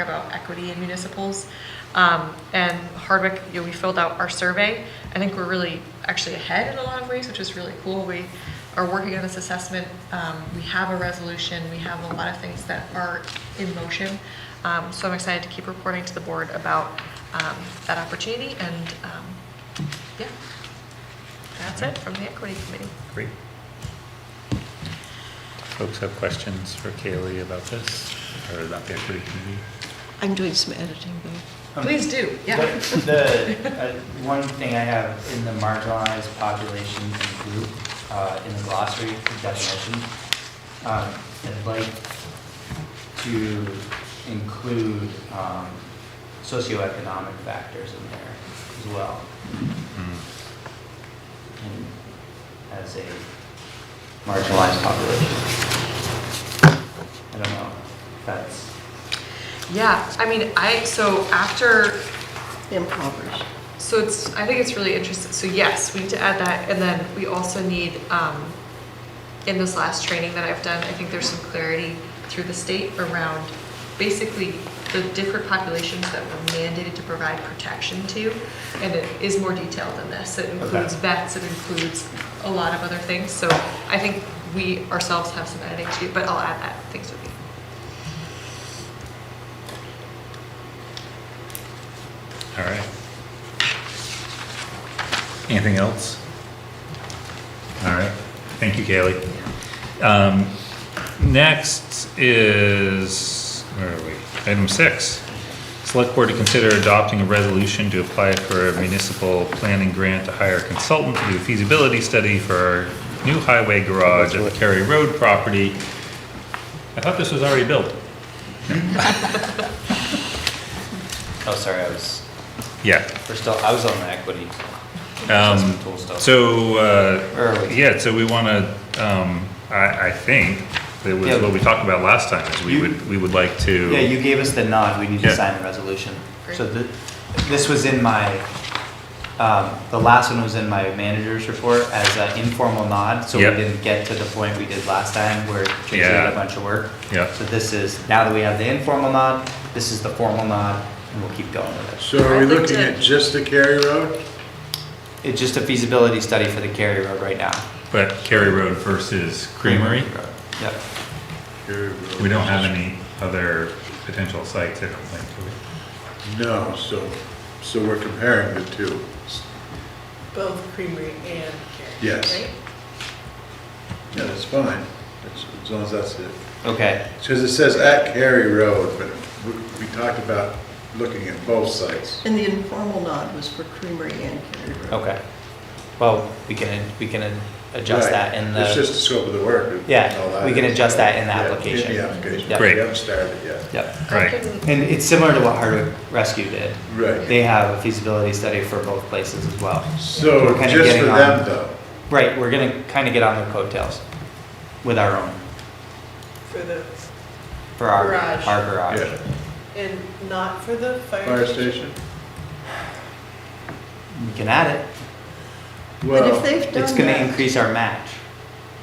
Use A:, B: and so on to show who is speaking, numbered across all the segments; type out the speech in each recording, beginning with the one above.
A: about equity in municipals. Um, And Hardwick, you know, we filled out our survey. I think we're really actually ahead in a lot of ways, which is really cool. We are working on this assessment. Um, We have a resolution, we have a lot of things that are in motion. Um, So I'm excited to keep reporting to the board about um, that opportunity and, um, yeah, that's it from the equity committee.
B: Great. Folks have questions for Kaylee about this, or about the equity committee?
C: I'm doing some editing, though.
D: Um,
A: Please do, yeah.
D: The, the, uh, one thing I have in the marginalized population and group, uh, in the glossary definition, um, I'd like to include, um, socioeconomic factors in there as well.
B: Hmm.
D: And as a marginalized population. I don't know, if that's,
A: Yeah, I mean, I, so after,
C: Impoverished.
A: so it's, I think it's really interesting. So yes, we need to add that, and then we also need, um, in this last training that I've done, I think there's some clarity through the state around basically the different populations that we're mandated to provide protection to. And it is more detailed than this. It includes vets, it includes a lot of other things. So I think we ourselves have some editing to do, but I'll add that, thanks Vivi.
B: All right. Anything else? All right, thank you, Kaylee. Um, Next is, where are we? Item six. Select Board to consider adopting a resolution to apply for a municipal planning grant to hire a consultant to do a feasibility study for our new highway garage at the Cary Road property. I thought this was already built.
D: oh, sorry, I was,
B: Yeah.
D: we're still, I was on the equity.
B: Um,
D: assessment tool stuff.
B: So,
D: Where
B: uh,
D: are we?
B: yeah, so we want to, um, I, I think, that was
D: Yeah.
B: what we talked about last time, is we
D: You-
B: would, we would like to.
D: Yeah, you gave us the nod, we need to
B: Yeah.
D: sign the resolution.
A: Great.
D: So the, this was in my, um, the last one was in my manager's report as an informal nod, so we
B: Yep.
D: didn't get to the point we did last time where Tracy
B: Yeah.
D: did a bunch of work.
B: Yep.
D: So this is, now that we have the informal nod, this is the formal nod, and we'll keep going with
E: So are
A: I'd
E: we
A: like
E: looking
A: to-
E: at just the Cary Road?
D: it. It's just a feasibility study for the Cary Road right now.
B: But Cary Road versus Creamery,
D: Yep.
E: Cary Road.
B: we don't have any other potential sites, I don't think, do we?
E: No, so, so we're comparing the two.
F: Both Creamery and Carrier.
E: Yes.
F: right?
E: Yeah, that's fine, That's- as long as that's it.
D: Okay,
E: Because it says at Cary Road, but we- we talked about looking at both sites.
C: And the informal nod was for Creamery and Carry Road.
D: okay. Well, we can, we can adjust that in
E: Right.
D: the.
E: It's just the scope of the work. and
D: Yeah,
E: all that
D: we can
E: is.
D: adjust that in the
E: Yeah,
D: application.
E: In the application.
D: Yeah.
B: Great.
E: We haven't started yet.
D: Yep.
B: Right,
D: And it's similar to what Hardwick Rescue did.
E: Right,
D: They have a feasibility study for both places as well.
E: so
D: We're kinda
E: just for
D: getting
E: them
D: on-
E: though,
D: Right, we're gonna kind of get on their coattails with our own,
F: For the,
D: for our,
F: Garage.
D: our garage.
E: yeah,
F: and not for the fire.
E: fire station?
D: We can add it.
C: But if
E: Well,
C: they've
D: It's
C: done
D: gonna
C: that,
D: increase our match.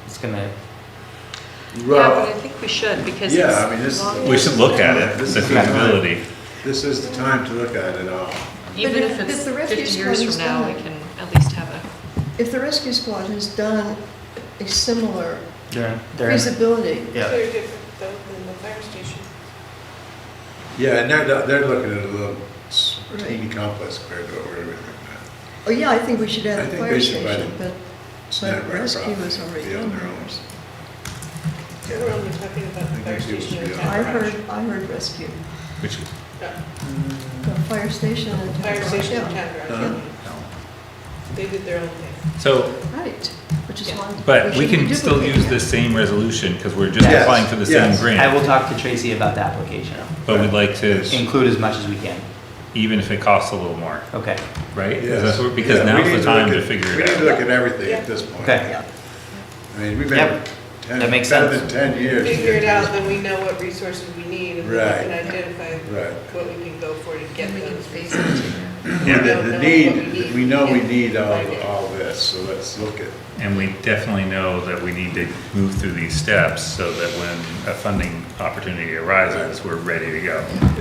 D: It's gonna,
A: Yeah, but I
E: well,
A: think we should because.
E: Yeah,
A: it's
E: I mean, this is-
F: long
B: we should look at it,
E: This
B: the
E: is not-
B: feasibility.
E: this is the time to look at it all.
A: Even
C: But
A: if it's
C: if- if the
A: 50
C: refuse
A: years
C: comes
A: from now, we
C: down-
A: can at least have a.
C: if the rescue squad has done a similar
D: they're, they're,
C: feasibility,
D: yeah,
F: They're different though than the fire station.
E: Yeah, and they're, they're looking at a little s- teeny complex compared to what we're doing right now.
C: oh yeah, I think we should
E: I
C: add the
E: think
C: fire
E: we should add
C: station, but,
E: It's not
C: but
E: our
C: rescue
E: problem.
C: was already
E: They're
C: done.
E: on their own.
F: We're only talking about the
E: I
F: fire
E: think it
F: station.
E: should be
F: and
E: on
C: I
F: town.
C: uh, heard, I heard rescue,
B: Which,
F: Yeah,
C: the fire station and town
F: Fire
C: garage,
F: station, and
C: yeah.
F: town
E: Huh?
F: garage. They did their own thing.
B: so,
C: Right, which is
F: Yeah.
C: why.
B: but we
C: shouldn't
B: can still
C: duplicate
B: use
C: that.
B: this same resolution, because we're just
E: Yes,
B: applying for the same
E: yes.
D: I
B: grant.
D: will talk to Tracy about the application.
B: But we'd like to,
D: Include as much as we can.
B: even if it costs a little more,
D: Okay,
B: right? Is
E: Yes.
B: that what- Because
E: Yeah, we
B: now's
E: need
B: the
E: look
B: time to
E: at-
B: figure it out.
E: We need to look at everything at
F: Yeah.
E: this point.
D: okay.
E: I mean, we've been
D: Yep.
E: ten,
D: That makes
E: better than
D: sense.
E: ten years. to
F: Figure it
E: get
F: out,
E: to
F: then we know what resources we need and then we can
E: Right.
F: identify
E: Right.
F: what we can go for to get
A: we can
F: those.
A: phase it too.
E: this.
B: Yeah.
E: And then
F: We
E: the
F: don't know what we
E: need,
F: need.
E: we know we
F: Yeah.
E: need all,
F: Right.
E: all this, so let's look at,
B: And we definitely know that we need to move through these steps so that when a funding opportunity arises, we're ready to go.